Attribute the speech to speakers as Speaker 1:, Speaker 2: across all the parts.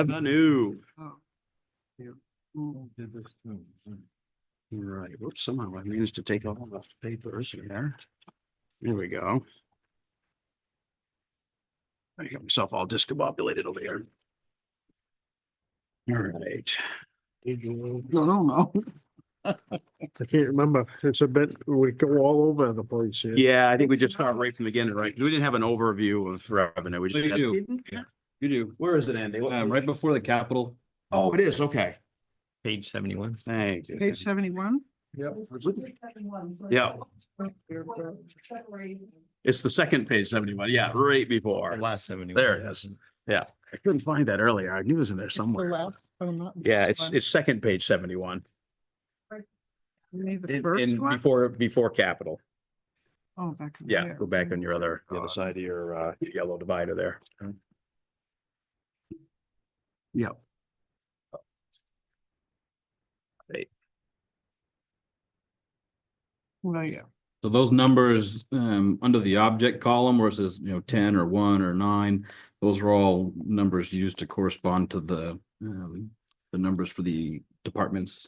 Speaker 1: revenue.
Speaker 2: Did this too.
Speaker 1: Right, whoops, somehow I managed to take all the papers in there. There we go. I got myself all discombobulated over here. All right.
Speaker 3: No, no, no.
Speaker 4: I can't remember. It's a bit, we go all over the place here.
Speaker 1: Yeah, I think we just start right from the beginning, right? 'Cause We didn't have an overview of revenue. We
Speaker 2: So
Speaker 1: just
Speaker 2: you
Speaker 1: had-
Speaker 2: do, you do.
Speaker 1: Where is it, Andy? What-
Speaker 2: Um, right before the capital.
Speaker 1: Oh, it is, okay.
Speaker 5: Page seventy-one.
Speaker 1: Thank you.
Speaker 3: Page seventy-one?
Speaker 2: Yep.
Speaker 1: Yeah. It's the second page seventy-one, yeah, right before.
Speaker 5: Last seventy.
Speaker 1: There it is. I couldn't find that earlier. I knew it was in there somewhere.
Speaker 3: oh,
Speaker 1: Yeah, it's, it's second page seventy-one.
Speaker 3: You mean the
Speaker 1: In,
Speaker 3: first
Speaker 1: in
Speaker 3: one?
Speaker 1: before, before capital.
Speaker 3: Oh, back. in
Speaker 1: Yeah,
Speaker 3: there.
Speaker 1: go back on your other, the other side of your, uh, yellow divider there. Yep.
Speaker 3: Well, yeah.
Speaker 2: So those numbers, um, under the object column where it says, you know, ten or one or nine, those are all numbers used to correspond to the, um, the numbers for the departments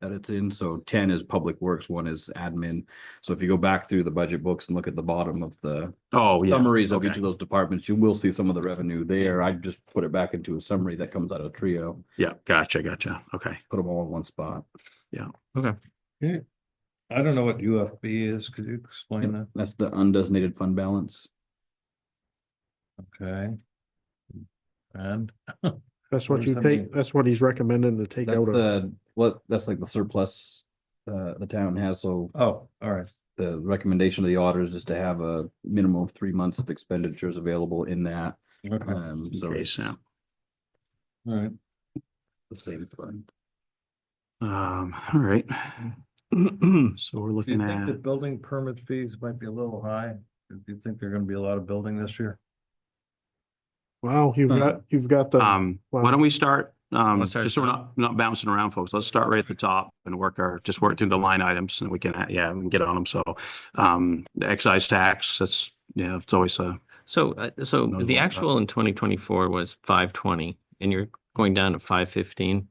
Speaker 2: that it's in. So ten is public works, one is admin. So if you go back through the budget books and look at the bottom of the
Speaker 1: Oh,
Speaker 2: summaries of each
Speaker 1: okay.
Speaker 2: of those departments, you will see some of the revenue there. I just put it back into a summary that comes out of Trio,
Speaker 1: Yeah, gotcha, gotcha. Okay.
Speaker 2: put them all in one spot.
Speaker 4: I don't know what UFB is. Could you explain that?
Speaker 2: That's the undesignated fund balance.
Speaker 4: Okay. And
Speaker 6: That's what
Speaker 4: Where's
Speaker 6: you
Speaker 4: the
Speaker 6: take,
Speaker 4: money?
Speaker 6: that's what he's recommending to take
Speaker 2: That's
Speaker 6: out of,
Speaker 2: the, what, that's like the surplus uh the town has, so
Speaker 4: oh, all right.
Speaker 2: the recommendation of the auditors is to have a minimum of three months of expenditures available in that.
Speaker 4: Okay,
Speaker 1: Uh,
Speaker 4: all
Speaker 2: Um, so
Speaker 1: Okay,
Speaker 2: it's
Speaker 1: so,
Speaker 4: right.
Speaker 2: the same fund.
Speaker 1: um, all right. So we're
Speaker 4: Do you
Speaker 1: looking
Speaker 4: think the
Speaker 1: at,
Speaker 4: building permit fees might be a little high? Do you think there are gonna be a lot of building this year?
Speaker 6: wow, you've
Speaker 2: Hmm.
Speaker 6: got, you've got the,
Speaker 1: um,
Speaker 6: Wow.
Speaker 1: why don't we start, um,
Speaker 5: Let's start
Speaker 1: just so we're
Speaker 5: at the
Speaker 1: not, not bouncing around, folks. Let's start right at the top and work our, just work through the line items and we can, uh, yeah, we can get on them. So, um, the excise tax, that's, yeah, it's always a,
Speaker 5: So, uh, so
Speaker 1: Those
Speaker 5: the
Speaker 1: ones up.
Speaker 5: actual in twenty twenty-four was five twenty and you're going down to five fifteen.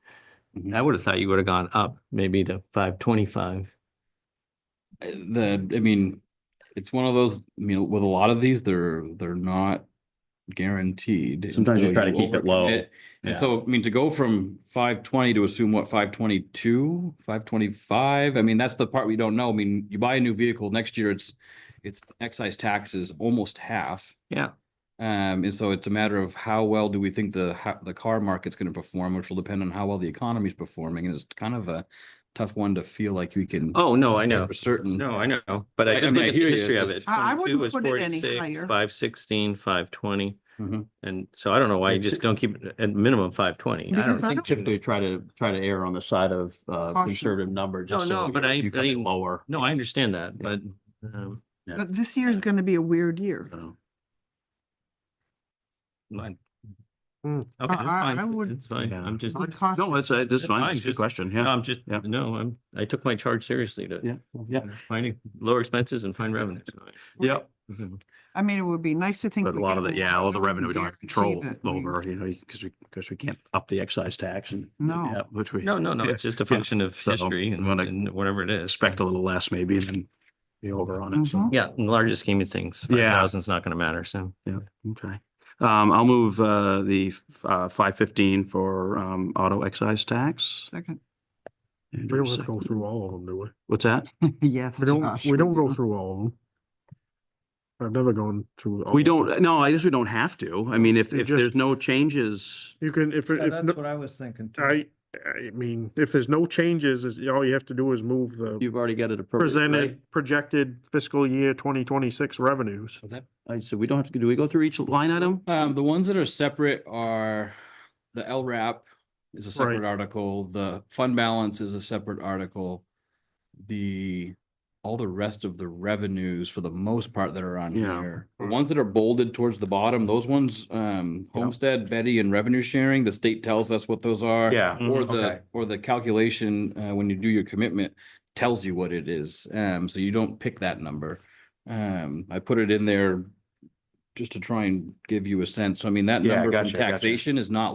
Speaker 1: Mhm.
Speaker 2: Mm-hmm.
Speaker 5: I would have thought you would have gone up maybe to five twenty-five.
Speaker 2: Uh, The, I mean, it's one of those, I mean, with a lot of these, they're, they're not guaranteed. and
Speaker 1: Sometimes you
Speaker 2: so
Speaker 1: try to keep it low.
Speaker 2: overcommit. And
Speaker 1: Yeah.
Speaker 2: so, I mean, to go from five twenty to assume what, five twenty-two, five twenty-five, I mean, that's the part we don't know. I mean, you buy a new vehicle, next year it's, it's excise tax is almost half.
Speaker 5: Yeah.
Speaker 2: Um, and so it's a matter of how well do we think the, ho- the car market's gonna perform, which will depend on how well the economy's performing, and it's kind of a tough one to feel like we can.
Speaker 5: Oh, no, I
Speaker 2: say
Speaker 5: know.
Speaker 2: For certain.
Speaker 5: No, I know, but
Speaker 2: I-
Speaker 5: I
Speaker 2: I
Speaker 5: did
Speaker 2: mean, I
Speaker 5: look at
Speaker 2: hear
Speaker 5: the
Speaker 2: you,
Speaker 5: history of
Speaker 2: it's
Speaker 5: it.
Speaker 3: I- I wouldn't
Speaker 5: 22 was
Speaker 3: put it any
Speaker 5: 46,
Speaker 3: higher.
Speaker 5: 516, 520.
Speaker 2: Mhm.
Speaker 5: And so I don't know why you just don't keep it at minimum five twenty. I don't
Speaker 3: Because I
Speaker 5: think
Speaker 3: don't-
Speaker 5: typically.
Speaker 1: typically try to, try to err on the side of, uh,
Speaker 3: Caution.
Speaker 1: conservative number, just
Speaker 5: no,
Speaker 1: so.
Speaker 5: but I-
Speaker 1: you come
Speaker 5: I-
Speaker 1: in Lower.
Speaker 5: No, I understand that, but, um,
Speaker 1: Yeah.
Speaker 3: But this year's gonna be a weird year.
Speaker 1: so.
Speaker 5: mine.
Speaker 6: Hmm.
Speaker 5: Okay, that's
Speaker 3: I- I- I
Speaker 5: fine.
Speaker 3: would-
Speaker 5: It's fine.
Speaker 1: Yeah.
Speaker 5: I'm just.
Speaker 3: I'd caution-
Speaker 1: No, that's, uh, that's
Speaker 5: That's
Speaker 1: fine.
Speaker 5: fine,
Speaker 1: It's a good
Speaker 5: just- um,
Speaker 1: question.
Speaker 5: No,
Speaker 1: Yeah.
Speaker 5: I'm just,
Speaker 1: Yeah.
Speaker 5: no, I'm, I took my charge seriously to
Speaker 1: Yeah. Yeah.
Speaker 5: finding lower expenses and find revenues.
Speaker 1: Yeah.
Speaker 3: I mean, it would be nice to think.
Speaker 1: But a
Speaker 3: we
Speaker 1: lot
Speaker 3: get
Speaker 1: of the,
Speaker 3: one,
Speaker 1: yeah, all the
Speaker 3: but I
Speaker 1: revenue we don't have
Speaker 3: guarantee
Speaker 1: control
Speaker 3: that we-
Speaker 1: over, you know, because we, because we can't up the excise tax and.
Speaker 3: No.
Speaker 1: yeah, Which we
Speaker 5: No, no, no,
Speaker 1: Yeah.
Speaker 5: it's just a
Speaker 1: Yeah.
Speaker 5: function of
Speaker 1: So,
Speaker 5: history and
Speaker 1: wanna
Speaker 5: and whatever it is.
Speaker 1: expect a little less maybe than be over on it. So,
Speaker 3: Mhm.
Speaker 5: Yeah, in the larger scheme of things,
Speaker 1: Yeah.
Speaker 5: five thousand's not gonna matter, so.
Speaker 1: yeah, okay. Um, I'll move, uh, the, f- uh, five fifteen for, um, auto excise tax.
Speaker 3: Second,
Speaker 6: we
Speaker 1: Andrew,
Speaker 6: don't go
Speaker 1: second.
Speaker 6: through all of them, do we?
Speaker 1: What's that?
Speaker 3: yes.
Speaker 6: We don't,
Speaker 3: Josh,
Speaker 6: we don't go
Speaker 3: do.
Speaker 6: through all of them. I've never gone through. all
Speaker 1: We
Speaker 6: of 'em.
Speaker 1: don't, no, I guess we don't have to. I mean, if,
Speaker 6: Oh. You
Speaker 1: if
Speaker 6: just-
Speaker 1: there's no changes,
Speaker 6: You can, if, it-
Speaker 4: Yeah,
Speaker 6: if,
Speaker 4: That's
Speaker 6: no-
Speaker 4: what I was thinking. too.
Speaker 6: I, I mean, if there's no changes, is- all you have to do is move the
Speaker 1: you've already got it appropriate,
Speaker 6: presented, projected fiscal year twenty twenty-six revenues.
Speaker 1: right? I said, we don't have to, do we go through each line item?
Speaker 2: Um, the ones that are separate are the LRAP is a separate article, the fund balance is a separate article. The, all the rest of the revenues for the most part that are on
Speaker 1: Yeah.
Speaker 2: here. The ones that are bolded towards the bottom, those ones, um, homestead, Betty and revenue sharing, the state tells us what those are.
Speaker 1: Yeah.
Speaker 2: Or
Speaker 5: Mhm,
Speaker 2: the,
Speaker 1: Mm-hmm, okay.
Speaker 2: or the calculation, uh, when you do your commitment, tells you what it is, um, so you don't pick that number. Um, I put it in there just to try and give you a sense, so I mean, that
Speaker 1: Yeah,
Speaker 2: number from
Speaker 1: gotcha, gotcha.
Speaker 2: taxation is not